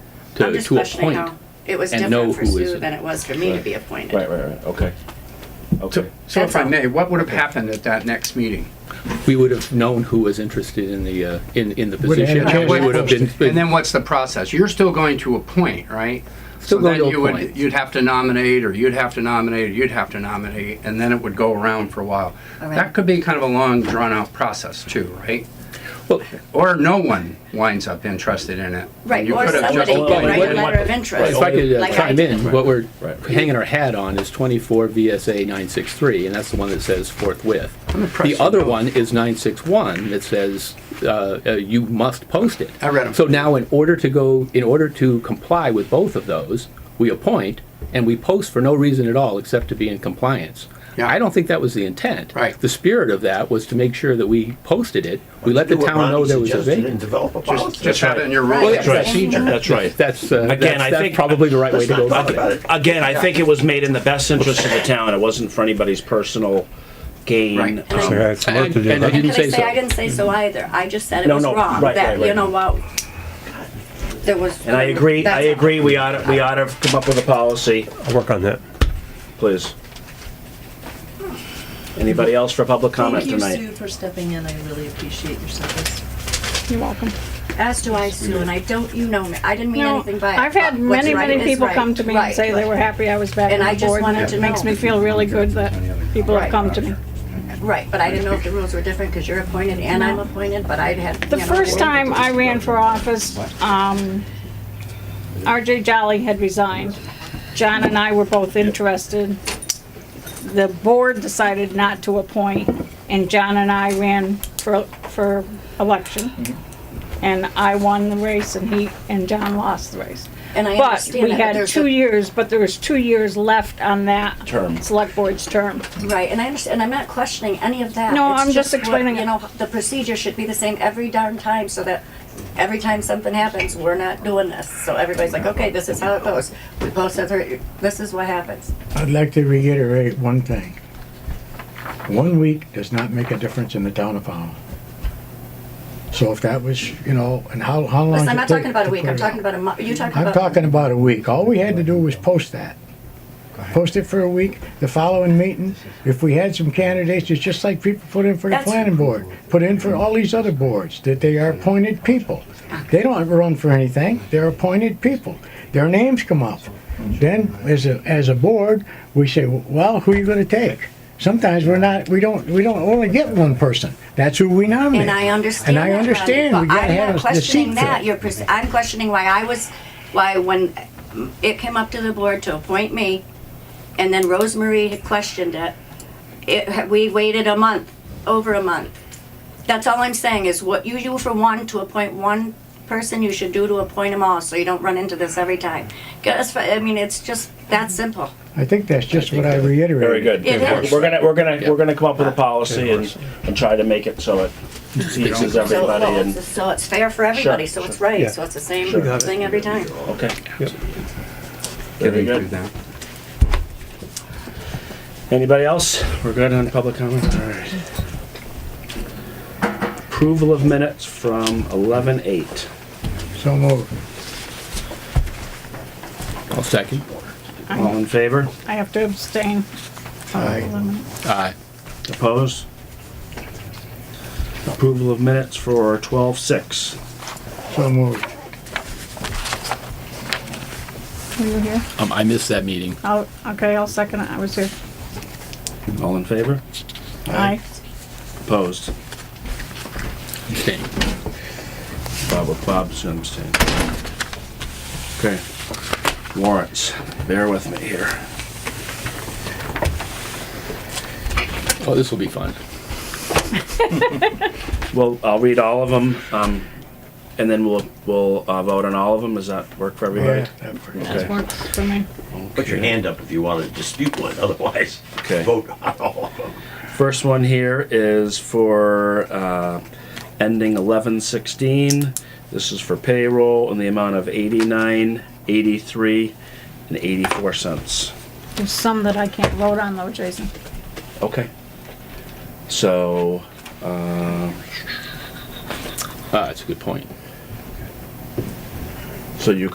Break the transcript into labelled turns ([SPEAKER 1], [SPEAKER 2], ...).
[SPEAKER 1] to,
[SPEAKER 2] just
[SPEAKER 1] to
[SPEAKER 2] questioning
[SPEAKER 1] appoint.
[SPEAKER 2] how It was
[SPEAKER 1] and know
[SPEAKER 2] different for
[SPEAKER 1] who is
[SPEAKER 2] Sue
[SPEAKER 1] it.
[SPEAKER 2] than it was for me to
[SPEAKER 1] Right.
[SPEAKER 2] be appointed.
[SPEAKER 3] Right, right, right, okay.
[SPEAKER 4] So,
[SPEAKER 3] Okay.
[SPEAKER 4] so if
[SPEAKER 2] That's
[SPEAKER 4] I
[SPEAKER 2] all.
[SPEAKER 4] may, what would have happened at that next meeting?
[SPEAKER 1] We would have known who was interested in the, uh, in, in the
[SPEAKER 5] Would have
[SPEAKER 1] position.
[SPEAKER 5] had
[SPEAKER 1] and we
[SPEAKER 4] a
[SPEAKER 1] would have
[SPEAKER 5] question.
[SPEAKER 4] And
[SPEAKER 1] been-
[SPEAKER 4] then what's the process? You're still going to appoint, right?
[SPEAKER 1] Still
[SPEAKER 4] So
[SPEAKER 1] going
[SPEAKER 4] then
[SPEAKER 1] to
[SPEAKER 4] you would-
[SPEAKER 1] appoint.
[SPEAKER 4] You'd have to nominate, or you'd have to nominate, or you'd have to nominate, and then it would go around for a while. That could be kind of a long, drawn-out process too, right?
[SPEAKER 1] Well,
[SPEAKER 4] Or no one winds up interested in it.
[SPEAKER 2] Right,
[SPEAKER 4] You
[SPEAKER 2] or
[SPEAKER 4] could have just
[SPEAKER 2] somebody could
[SPEAKER 4] appointed
[SPEAKER 2] write a
[SPEAKER 4] one.
[SPEAKER 2] letter of
[SPEAKER 1] If
[SPEAKER 2] interest.
[SPEAKER 1] I could uh,
[SPEAKER 2] Like I
[SPEAKER 1] chime
[SPEAKER 2] did.
[SPEAKER 1] in, what we're
[SPEAKER 3] Right.
[SPEAKER 1] hanging our hat on is 24 VSA 963, and that's the one that says forthwith. The
[SPEAKER 4] impressed
[SPEAKER 1] other
[SPEAKER 4] with
[SPEAKER 1] one is 961 that says uh, uh, you must post it.
[SPEAKER 4] I read 'em.
[SPEAKER 1] So now, in order to go, in order to comply with both of those, we appoint and we post for no reason at all except to be in compliance.
[SPEAKER 4] Yeah.
[SPEAKER 1] I don't think that was the intent.
[SPEAKER 4] Right.
[SPEAKER 1] The spirit of that was to make sure that we posted it, we let the
[SPEAKER 6] Do what
[SPEAKER 1] town know
[SPEAKER 6] Ronnie
[SPEAKER 1] there was a
[SPEAKER 6] suggested
[SPEAKER 1] vacancy.
[SPEAKER 6] And develop a
[SPEAKER 4] Just,
[SPEAKER 6] policy.
[SPEAKER 4] just have it in your
[SPEAKER 2] Right.
[SPEAKER 4] rules.
[SPEAKER 2] That's right. Procedure.
[SPEAKER 3] That's right.
[SPEAKER 1] That's, uh,
[SPEAKER 6] Again,
[SPEAKER 1] that's,
[SPEAKER 6] I
[SPEAKER 1] that's
[SPEAKER 6] think-
[SPEAKER 1] probably the right way to go
[SPEAKER 6] Let's not
[SPEAKER 1] about
[SPEAKER 6] talk
[SPEAKER 1] it.
[SPEAKER 6] about it.
[SPEAKER 7] Again, I think it was made in the best interest of the town. It wasn't for anybody's personal
[SPEAKER 4] Right.
[SPEAKER 7] gain.
[SPEAKER 2] And I-
[SPEAKER 5] So that's
[SPEAKER 1] And-
[SPEAKER 5] work to do.
[SPEAKER 1] and I
[SPEAKER 5] right?
[SPEAKER 1] didn't
[SPEAKER 2] Can I
[SPEAKER 1] say
[SPEAKER 2] say,
[SPEAKER 1] so. Mm-hmm.
[SPEAKER 2] I didn't say so either. I just said it
[SPEAKER 7] No,
[SPEAKER 2] was
[SPEAKER 7] no,
[SPEAKER 2] wrong,
[SPEAKER 7] right,
[SPEAKER 2] that,
[SPEAKER 7] right,
[SPEAKER 2] you
[SPEAKER 7] right.
[SPEAKER 2] know, what there was.
[SPEAKER 7] And I agree, I
[SPEAKER 2] that's all.
[SPEAKER 7] agree, we ought, we ought to come up with a policy,
[SPEAKER 5] I'll work on that.
[SPEAKER 7] please. Anybody else for public comment
[SPEAKER 8] Thank you,
[SPEAKER 7] tonight?
[SPEAKER 8] Sue, for stepping in. I really appreciate your service.
[SPEAKER 9] You're welcome.
[SPEAKER 2] As do I, Sue, and I don't, you know me, I didn't mean
[SPEAKER 9] No,
[SPEAKER 2] anything by it.
[SPEAKER 9] I've had
[SPEAKER 2] but what's
[SPEAKER 9] many,
[SPEAKER 2] right
[SPEAKER 9] many
[SPEAKER 2] is
[SPEAKER 9] people
[SPEAKER 2] right.
[SPEAKER 9] come to me
[SPEAKER 2] Right.
[SPEAKER 9] and say they were happy I was back
[SPEAKER 2] And I
[SPEAKER 9] on the
[SPEAKER 2] just
[SPEAKER 9] board.
[SPEAKER 2] wanted
[SPEAKER 9] and
[SPEAKER 2] to
[SPEAKER 9] It makes
[SPEAKER 2] know.
[SPEAKER 9] me feel really good that people
[SPEAKER 2] Right.
[SPEAKER 9] have come to me.
[SPEAKER 2] Right, but I didn't know if the rules were different because you're appointed and I'm appointed, but I'd had.
[SPEAKER 9] The
[SPEAKER 2] you know,
[SPEAKER 9] first
[SPEAKER 2] they-
[SPEAKER 9] time I ran for office, um, RJ Jolly had resigned. John and I were both interested. The board decided not to appoint, and John and I ran for, for election. And I won the race and he, and John lost the race.
[SPEAKER 2] And I
[SPEAKER 9] But
[SPEAKER 2] understand
[SPEAKER 9] we
[SPEAKER 2] that, but
[SPEAKER 9] had
[SPEAKER 2] there's
[SPEAKER 9] two
[SPEAKER 2] a,
[SPEAKER 9] years, but there was two years left on that.
[SPEAKER 7] Term.
[SPEAKER 9] Select board's term.
[SPEAKER 2] right, and I understand, and I'm not questioning any of that.
[SPEAKER 9] No,
[SPEAKER 2] It's
[SPEAKER 9] I'm just
[SPEAKER 2] what,
[SPEAKER 9] explaining
[SPEAKER 2] You
[SPEAKER 9] it.
[SPEAKER 2] know, the procedure should be the same every darn time so that every time something happens, we're not doing this. So everybody's like, okay, this is how it goes. We both said, this is what happens.
[SPEAKER 5] I'd like to reiterate one thing. One week does not make a difference in the town of Pownell. So if that was, you know, and how, how long?
[SPEAKER 2] Listen, I'm
[SPEAKER 5] it
[SPEAKER 2] not
[SPEAKER 5] take
[SPEAKER 2] talking about a
[SPEAKER 5] to
[SPEAKER 2] week,
[SPEAKER 5] put
[SPEAKER 2] I'm
[SPEAKER 5] it
[SPEAKER 2] talking
[SPEAKER 5] out?
[SPEAKER 2] about a month, you talking about.
[SPEAKER 5] I'm talking about a week. All we had to do was post that. Post it for a week, the following meeting, if we had some candidates, it's just like people put in for the
[SPEAKER 2] That's-
[SPEAKER 5] planning board, put in for all these other boards, that they are appointed people. They don't run for anything, they're appointed people. Their names come up. Then, as a, as a board, we say, well, who are you gonna take? Sometimes we're not, we don't, we don't only get one person. That's who we nominate.
[SPEAKER 2] And I understand.
[SPEAKER 5] And I
[SPEAKER 2] that, Ronnie,
[SPEAKER 5] understand, we
[SPEAKER 2] but
[SPEAKER 5] gotta
[SPEAKER 2] I'm
[SPEAKER 5] have
[SPEAKER 2] not
[SPEAKER 5] a- the
[SPEAKER 2] questioning
[SPEAKER 5] seat
[SPEAKER 2] that.
[SPEAKER 5] filled.
[SPEAKER 2] You're, pers- I'm questioning why I was, why when it came up to the board to appoint me, and then Rosemarie had questioned it, it, we waited a month, over a month. That's all I'm saying is what you do for one to appoint one person, you should do to appoint them all, so you don't run into this every time. 'Cause, I mean, it's just that simple.
[SPEAKER 5] I think that's just what I reiterated.
[SPEAKER 7] Very good.
[SPEAKER 2] It
[SPEAKER 7] We're
[SPEAKER 2] is.
[SPEAKER 7] we're gonna, we're gonna, we're gonna come up with a policy and, and try to make it so it pleases
[SPEAKER 2] So,
[SPEAKER 7] everybody
[SPEAKER 2] well,
[SPEAKER 7] and,
[SPEAKER 2] it's- so it's fair for everybody,
[SPEAKER 7] Sure,
[SPEAKER 2] so it's
[SPEAKER 7] sure.
[SPEAKER 2] right,
[SPEAKER 5] Yeah.
[SPEAKER 2] so it's the same
[SPEAKER 7] Sure. Got
[SPEAKER 2] thing every time.
[SPEAKER 7] okay. Very
[SPEAKER 4] Getting through
[SPEAKER 7] good.
[SPEAKER 4] that.
[SPEAKER 7] Anybody else? We're good on public comment? All right. Approval of minutes from eleven eight.
[SPEAKER 5] So moved.
[SPEAKER 1] I'll second.
[SPEAKER 7] All in favor?
[SPEAKER 9] I have to abstain.
[SPEAKER 5] Aye.
[SPEAKER 1] Aye.
[SPEAKER 7] Opposed? Approval of minutes for twelve six.
[SPEAKER 5] So moved.
[SPEAKER 9] You were here?
[SPEAKER 1] Um, I missed that meeting.
[SPEAKER 9] Oh, okay, I'll second it. I was here.
[SPEAKER 7] All in favor?
[SPEAKER 9] Aye.
[SPEAKER 7] Opposed?
[SPEAKER 1] Abstain.
[SPEAKER 7] Bob, Bob's abstaining. Okay. Warrants, bear with me here.
[SPEAKER 1] Oh, this will be fun.
[SPEAKER 7] Well, I'll read all of them, um, and then we'll, we'll, uh, vote on all of them. Does that work for everybody?
[SPEAKER 5] Oh, Yeah, that worked.
[SPEAKER 9] That works for me.
[SPEAKER 6] Put your hand up if you want to dispute one, otherwise,
[SPEAKER 7] Okay.
[SPEAKER 6] vote on all of them.
[SPEAKER 7] First one here is for uh, ending eleven sixteen. This is for payroll in the amount of eighty nine, eighty three, and eighty four cents.
[SPEAKER 9] There's some that I can't vote on though, Jason.
[SPEAKER 7] Okay. So, uh,
[SPEAKER 1] Ah, that's a good point.
[SPEAKER 7] so you